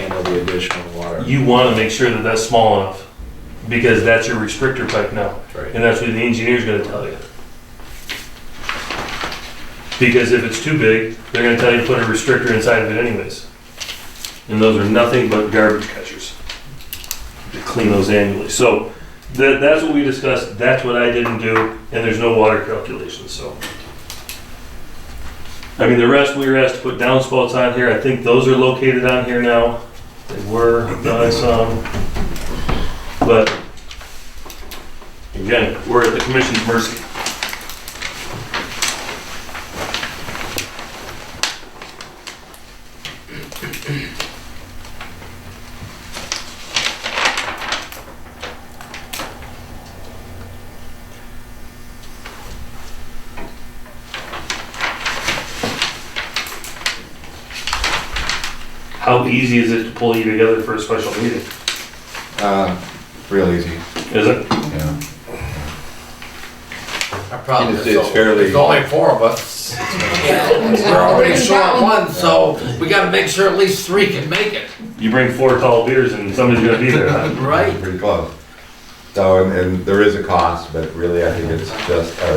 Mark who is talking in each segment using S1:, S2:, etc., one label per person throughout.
S1: all the additional water.
S2: You want to make sure that that's small enough because that's your restrictor pipe now.
S1: Right.
S2: And that's what the engineer's gonna tell you. Because if it's too big, they're gonna tell you to put a restrictor inside of it anyways. And those are nothing but garbage catchers. To clean those annually. So that, that's what we discussed, that's what I didn't do, and there's no water calculations, so. I mean, the rest, we were asked to put downspouts on here. I think those are located on here now. They were, I saw them. But Again, we're at the commission's mercy. How easy is it to pull you together for a special meeting?
S3: Uh, real easy,
S2: Is it?
S3: yeah.
S4: Our problem
S3: And
S4: is,
S3: it's- it's
S4: so-
S3: fairly-
S4: there's only four of us. We're already short on one, so we gotta make sure at least three can make it,
S2: You bring four tall beers and somebody's gonna be there, huh?
S4: right?
S3: Pretty close. So, and, and there is a cost, but really I think it's just our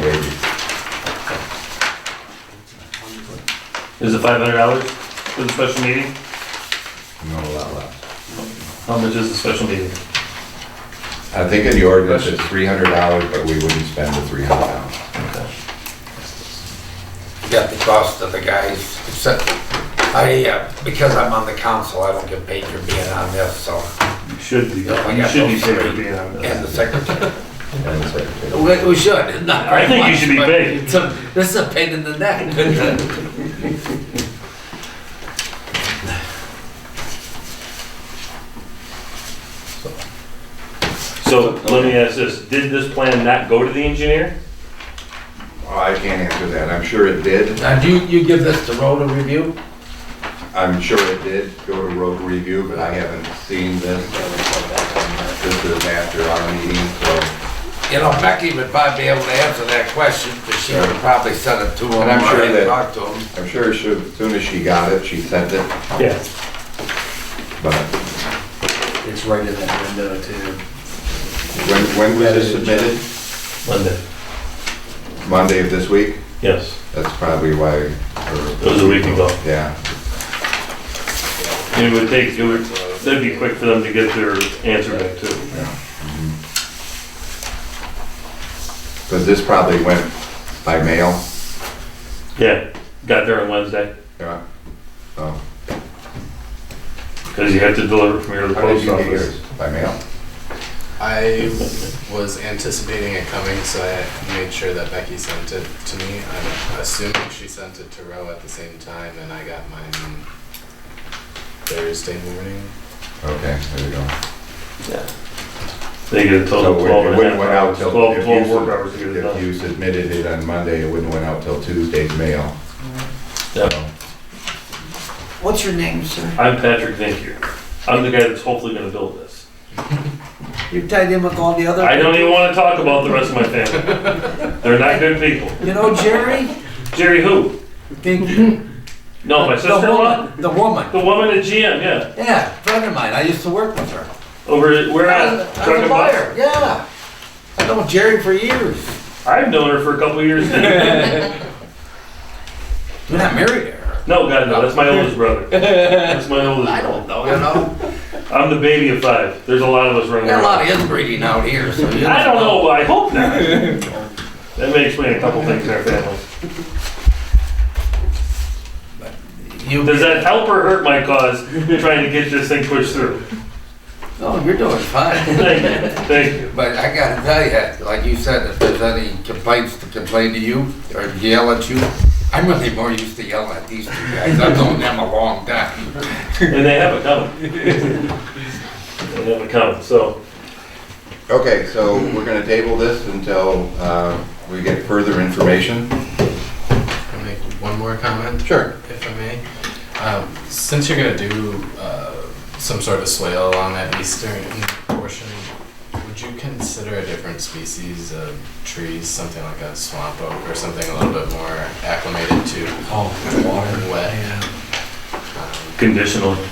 S3: wages.
S2: Is it five hundred dollars for the special meeting?
S3: Not a lot left.
S2: How much is the special meeting?
S3: I think in the ordinance it's three hundred dollars, but we wouldn't spend the three hundred dollars.
S4: You Got the cost of the guys, except, I, uh, because I'm on the council, I don't get paid for being on this, so,
S2: You should be,
S4: I
S2: you
S4: got
S2: should be
S4: those
S2: paid
S4: three.
S2: for being on
S4: and
S2: this.
S4: the secretary.
S3: And the secretary.
S4: We, we should, not
S2: I think you should be paid.
S4: paid. This is a pain in the neck.
S2: So let me ask this, did this plan not go to the engineer?
S3: Well, Oh, I can't answer that. I'm sure it did.
S4: Now, do you, you give this to Rhoda review?
S3: I'm sure it did go to road review, but I haven't seen this. This is after our meeting, so,
S4: You know, Becky would probably be able to answer that question, but she would probably send it to him.
S3: And I'm sure
S4: or
S3: that-
S4: Talk to him.
S3: I'm sure she- as soon as she got it, she sent it,
S2: Yeah.
S3: but
S5: It's right in that window too.
S3: when, when was it submitted?
S2: Monday.
S3: Monday of this week?
S2: Yes,
S3: That's probably why. or-
S2: it was a week ago.
S3: Yeah,
S2: It would take, it would, that'd be quick for them to get their answer back too.
S3: because this probably went by mail.
S2: Yeah, got there on Wednesday,
S3: Yeah. So,
S2: because you have to deliver from here to the
S3: how did
S2: post
S3: you get yours?
S2: office.
S3: By mail?
S5: I was anticipating it coming, so I made sure that Becky sent it to me. I'm assuming she sent it to Roe at the same time, and I got mine Thursday morning.
S3: Okay, there you go.
S2: They get a total
S3: So
S2: of
S3: it
S2: twelve and a
S3: wouldn't
S2: half
S3: went out
S2: hours,
S3: till.
S2: twelve,
S3: if
S2: twelve
S3: you
S2: work
S3: sub-
S2: hours to get it
S3: If
S2: done.
S3: you submitted it on Monday, it wouldn't went out till Tuesday's mail.
S2: Yep.
S3: So,
S6: What's your name, sir?
S2: I'm Patrick Vinkier. I'm the guy that's hopefully gonna build this.
S6: You're tied in with all the other.
S2: I don't even wanna talk about the rest of my family. They're not good people.
S6: You know Jerry?
S2: Jerry who?
S6: The-
S2: No, my
S4: The
S2: sister-in-law?
S4: woman- The woman,
S2: The woman at GM, yeah.
S4: yeah, friend of mine, I used to work with her.
S2: Over at, where
S4: I
S2: at?
S4: was I was a buyer, yeah. I know Jerry for years.
S2: I've known her for a couple of years now.
S4: You're not married to her.
S2: No, God, no, that's my oldest brother. That's my oldest
S4: I
S2: brother.
S4: don't know, you know?
S2: I'm the baby of five. There's a lot of us running
S4: Got a
S2: around.
S4: lot of inbreeding out here, so you
S2: I don't know, but I hope not. That may explain a couple things in our family.
S4: You,
S2: Does that help or hurt my cause trying to get this thing pushed through?
S4: no, you're doing Oh, fine.
S2: Thank you, thank you.
S4: But I gotta tell you, like you said, if there's any complaints to complain to you or yell at you, I'm really more used to yelling at these two guys. I've known them a long time.
S2: And they have it coming. They have it coming, so.
S3: Okay, so we're gonna table this until, uh, we get further information.
S5: Can I make one more comment?
S3: Sure.
S5: If I may. Um, since you're gonna do uh, some sort of swale along that eastern portion, would you consider a different species of trees, something like a swamp oak or something a little bit more acclimated to? Oh, water. Wet.
S2: Conditional.